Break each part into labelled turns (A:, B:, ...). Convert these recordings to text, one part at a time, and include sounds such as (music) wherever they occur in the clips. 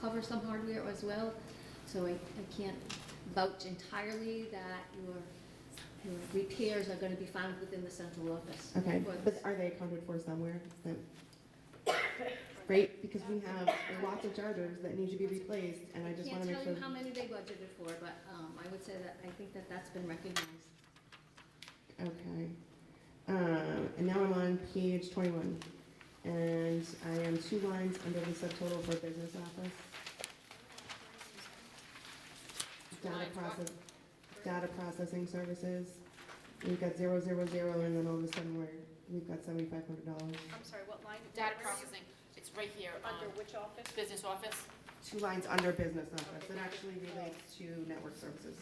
A: cover some hardware as well. So I, I can't vouch entirely that your, your repairs are gonna be found within the central office.
B: Okay,
A: For
B: but
A: this.
B: are they accounted for somewhere? Is that- Great, because we have lots of chargers that need to be replaced, and I just
A: Can't
B: want to make
A: tell you how
B: sure.
A: many they budgeted for, but, um, I would say that, I think that that's been recognized.
B: Okay. Um, And now I'm on page 21, and I am two lines under the subtotal for business office. Data
C: Lines what?
B: process, data processing services. We've got zero, zero, zero, and then all of a sudden, we're, we've got $7,500.
D: I'm sorry, what line? Where
C: Data
D: is it?
C: processing, it's right here,
D: Under
C: um,
D: which office?
C: business office.
B: two lines under business office that actually relates to network services.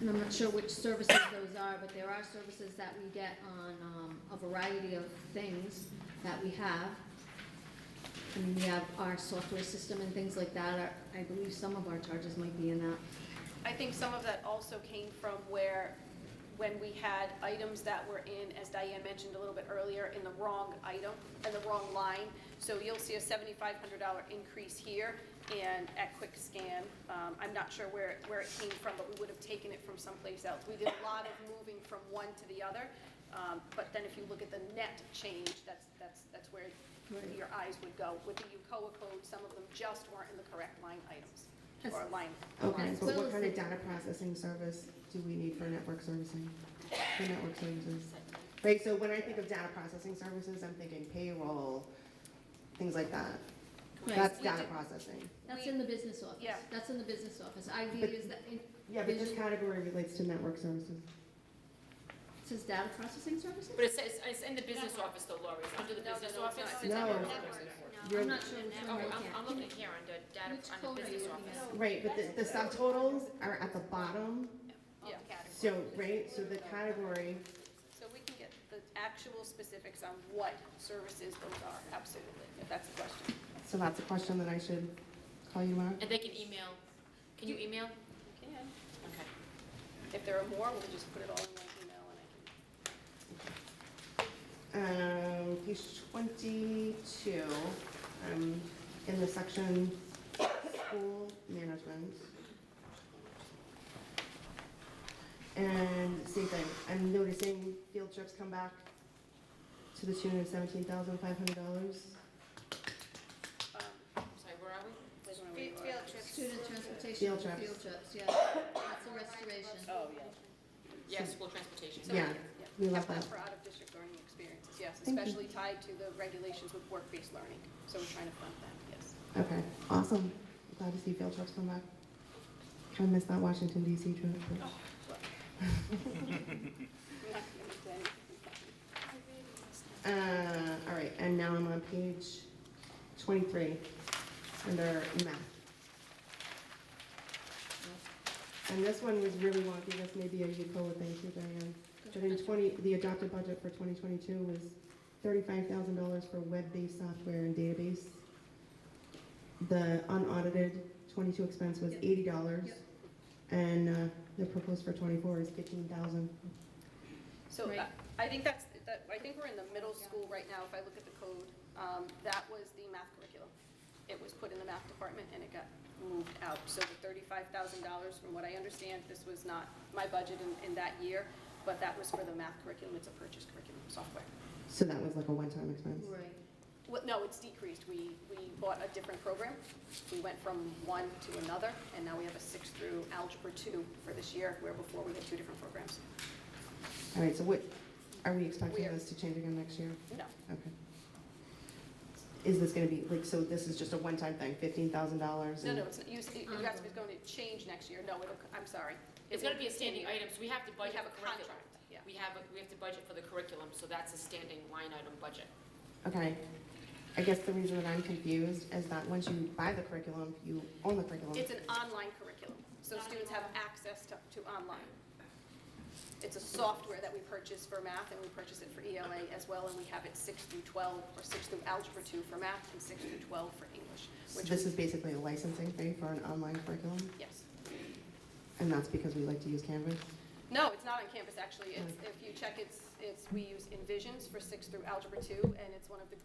A: And I'm not sure which services those are, but there are services that we get on um, a variety of things that we have. I mean, we have our software system and things like that. Our- I believe some of our charges might be in that.
D: I think some of that also came from where, when we had items that were in, as Diane mentioned a little bit earlier, in the wrong item, in the wrong line. So you'll see a $7,500 increase here and at Quick Scan. Um, I'm not sure where, where it came from, but we would have taken it from someplace else. We did a lot of moving from one to the other. Um, But then if you look at the net change, that's, that's, that's where
A: Right.
D: your eyes would go. With the UCOA code, some of them just weren't in the correct line items or
A: Yes.
D: line.
B: Okay,
A: As
B: but
A: well
B: what
A: as
B: kind of
A: the-
B: data processing service do we need for network servicing? For network services? Like, so when I think of data processing services, I'm thinking payroll, things like that.
A: Right.
B: That's
A: We
B: data
A: do-
B: processing.
A: That's
D: We-
A: in the business office.
D: Yeah.
A: That's in the business office. ID
B: But-
A: is the. in-
B: Yeah, but this
A: vision-
B: category relates to network services.
A: it Says data processing services?
C: But it says, it's in the business office though, Lori, it's under the
D: No, no,
C: business
D: no, it's
C: office.
D: not.
B: No.
C: under
B: No.
C: business office.
A: I'm not sure which
C: Oh,
A: one we're
C: I'm, I'm
A: looking
C: looking
A: at.
C: here under data,
A: Which
C: under
A: code are you
C: business
A: looking
C: office.
A: at?
B: Right, but the, the subtotals are at the bottom,
D: Yeah.
B: so, right, so the category,
D: So we can get the actual specifics on what services those are, absolutely, if that's the question.
B: so that's a question that I should call you Mark?
C: And they can email, can you email?
D: We can.
C: Okay.
D: If there are more, we'll just put it all in one email and I
B: Um, page twenty-two, um, in the section school management. And same thing, I'm noticing field trips come back to the tune of seventeen thousand five hundred dollars.
D: can, um,
C: Sorry, where are we?
D: they don't know where you
E: Field
D: are.
E: field trips.
A: Student transportation.
B: Field trips.
A: Field trips, yeah. That's a restoration.
D: Oh, yeah.
C: Yeah, school transportation.
D: So,
B: Yeah, we love
D: Have
B: that.
D: for out-of-district learning experiences, yes,
B: Thank you.
D: especially tied to the regulations with work-based learning. So we're trying to fund that, yes.
B: Okay, awesome, glad to see field trips come back. Kind of missed that Washington DC trip.
D: Oh,
B: but-
D: (laughs) We're not gonna do anything.
B: Uh, all right, and now I'm on page 23, under math. And this one was really wonky, this may be a Yukola thing too, Diane. But in 20, the adopted budget for 2022 was $35,000 for web-based software and database. The unaudited 22 expense was
A: Yep.
B: $80.
A: Yep.
B: And uh, the proposed for 24 is 15,000.
D: So
A: Right.
D: uh, I think that's, that- I think we're in the middle school right now, if I look at the code. Um, That was the math curriculum. It was put in the math department and it got moved out. So the $35,000, from what I understand, this was not my budget in, in that year, but that was for the math curriculum, it's a purchase curriculum software.
B: So that was like a one-time expense.
A: Right.
D: Well, no, it's decreased, we, we bought a different program. We went from one to another, and now we have a six through Algebra 2 for this year, where before we had two different programs.
B: All right, so what, are we expecting
D: We are-
B: this to change again next year?
D: No,
B: Okay. Is this gonna be, like, so this is just a one-time thing, fifteen thousand dollars?
D: No, no, it's, you, you asked if it's going to change next year. No, it'll, I'm sorry.
C: It's gonna be a standing item, so we have to budget
D: have
C: for
D: a
C: curriculum.
D: contract, yeah.
C: We have, a- we have to budget for the curriculum, so that's a standing line item budget.
B: Okay. I guess the reason that I'm confused is that once you buy the curriculum, you own the curriculum.
D: It's an online curriculum, so students have access to, to online. It's a software that we purchase for math, and we purchase it for ELA as well, and we have it six through 12, or six through Algebra 2 for math, and six through 12 for English,
B: So
D: which
B: This is
D: is,
B: basically a licensing fee for an online curriculum,
D: yes.
B: and that's because we like to use Canvas?
D: No, it's not on campus, actually. It's, if you check, it's, it's, we use Envisions for six through Algebra 2, and it's one of the